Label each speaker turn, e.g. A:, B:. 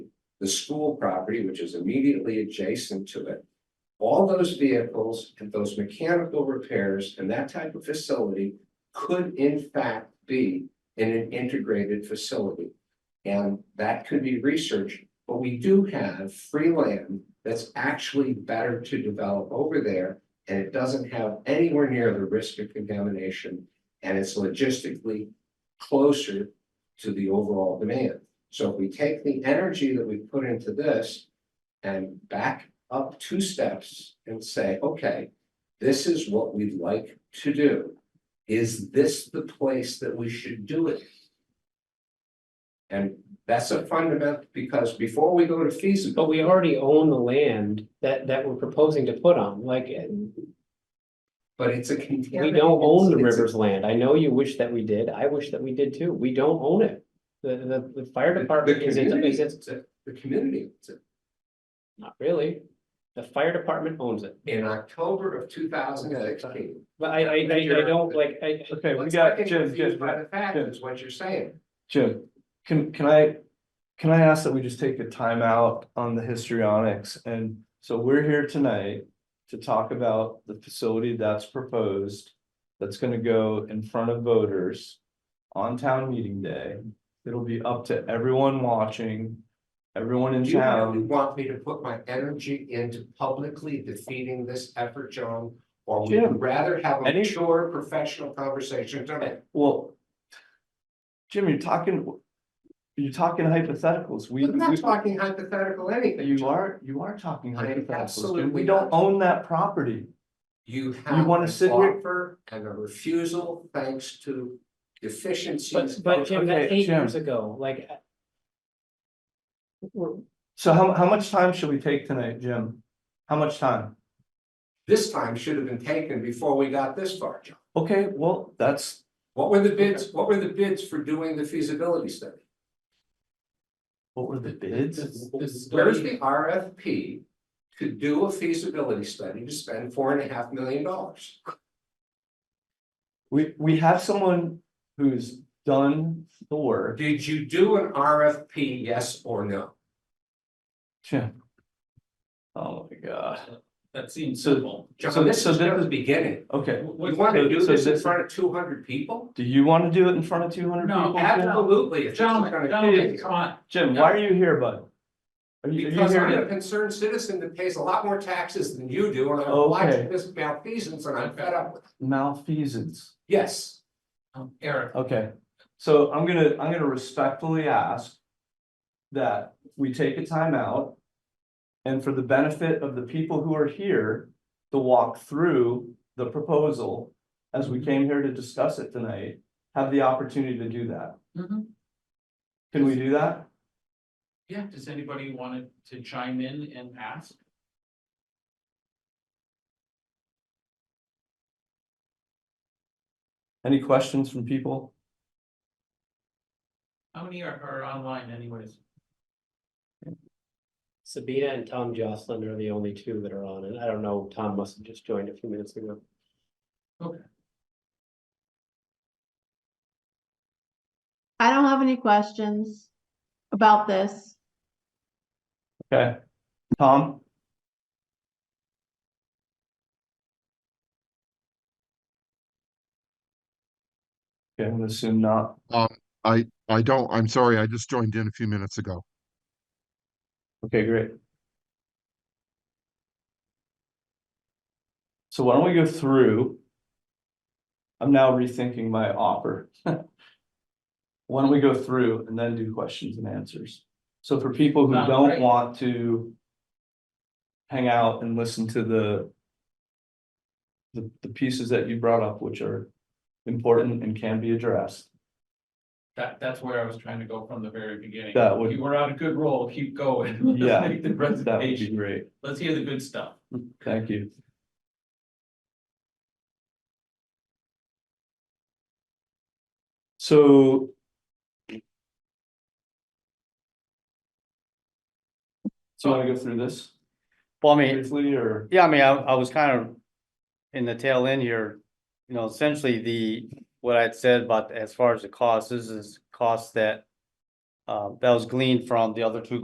A: the school property, which is immediately adjacent to it. All those vehicles and those mechanical repairs and that type of facility could in fact be in an integrated facility. And that could be researched, but we do have free land that's actually better to develop over there. And it doesn't have anywhere near the risk of contamination and it's logistically closer to the overall demand. So if we take the energy that we put into this and back up two steps and say, okay, this is what we'd like to do. Is this the place that we should do it? And that's a fundamental, because before we go to feasible,
B: But we already own the land that, that we're proposing to put on, like, eh,
A: but it's a
B: we
A: contaminated.
B: don't own the
A: it's a-
B: river's land. I know you wish that we did. I wish that we did too. We don't own it. The, the, the fire
A: the- the
B: department is, it-
A: community
B: is it,
A: owns it, The community, owns it.
B: not really. The fire department owns it.
A: in October of two thousand sixteen.
B: But I, I, I I don't like, I,
C: Okay, we
A: Let's
C: got
A: not get
C: Jim,
A: confused
C: Jim,
A: By the fact
C: Jim.
A: is what you're saying.
C: Jim, can, can I, can I ask that we just take a timeout on the histrionics? And so we're here tonight to talk about the facility that's proposed, that's gonna go in front of voters on town meeting day. It'll be up to everyone watching, everyone in
A: Do you really
C: town.
A: want me to put my energy into publicly defeating this effort, John? Or would you
C: Jim,
A: rather have a
C: any-
A: mature professional conversation tonight?
C: Well, Jim, you're talking, you're talking hypotheticals. We,
A: I'm
C: we-
A: not talking hypothetical anything.
C: you are, you are talking
A: I am
C: hypotheticals. Jim.
A: absolutely
C: We don't
A: not.
C: own that property.
A: You have
C: wanna
A: an
C: sit here-
A: offer and a refusal thanks to deficiencies.
B: but, but Jim, that's
C: Okay,
B: eight
C: Jim.
B: years ago, like. uh, I- We're,
C: So how, how much time should we take tonight, Jim? How much time?
A: This time should have been taken before we got this far, John.
C: Okay, well, that's,
A: What were the bids, what were the bids for doing the feasibility study?
C: what were the bids?
A: Where's the RFP to do a feasibility study to spend four and a half million dollars?
C: We, we have someone who's done the work.
A: Did you do an RFP, yes or no?
C: Jim. Oh my god.
D: That seems
C: So-
D: simple.
C: So-
A: John, this
C: so
A: is
C: this
A: just
C: is-
A: the beginning.
C: Okay,
A: You
D: What- what's-
A: want to
C: so-
A: do
C: so
A: this in
C: this-
A: front of two hundred people?
C: do you want to do it in front of two hundred
D: No,
C: people? Jim?
A: Absolutely. if this is gonna
D: Gentlemen,
A: be-
D: gentlemen, come on.
C: Jim, why are you here, bud? Are you, are you
A: Because
C: here
A: I'm a
C: to?
A: concerned citizen that pays a lot more taxes than you do, and I'm
C: Okay.
A: watching this malfeasance and I'm fed up with it.
C: Malfeasance.
A: Yes.
D: Um, Eric,
C: Okay, so I'm gonna, I'm gonna respectfully ask. That we take a timeout. And for the benefit of the people who are here, to walk through the proposal. As we came here to discuss it tonight, have the opportunity to do that.
D: Mhm.
C: Can we do that?
D: yeah, does anybody want to chime in and ask?
C: Any questions from people?
D: How many are, are online anyways?
B: Sabina and Tom Jocelyn are the only two that are on, and I don't know, Tom must have just joined a few minutes ago.
E: I don't have any questions about this.
C: Okay, Tom? Okay, I'm gonna assume not.
F: I don't, I'm sorry, I just joined in a few minutes ago.
C: Okay, great. So why don't we go through? I'm now rethinking my offer. Why don't we go through and then do questions and answers? So for people who
D: Sounds
C: don't
D: great.
C: want to hang out and listen to the the, the pieces that you brought up, which are important and can be addressed.
D: That, that's where I was trying to go from the very beginning.
C: That would-
D: You were on a good roll, keep going. Let's
C: Yeah,
D: Make the
C: That would be
D: presentation,
C: great.
D: let's hear the good stuff.
C: Thank you. So. So you wanna go through this
G: Well, I mean,
C: briefly or?
G: yeah, I mean, I, I was kind of in the tail end here, you know, essentially the, what I'd said about as far as the cost, this is costs that uh, that was gleaned from the other two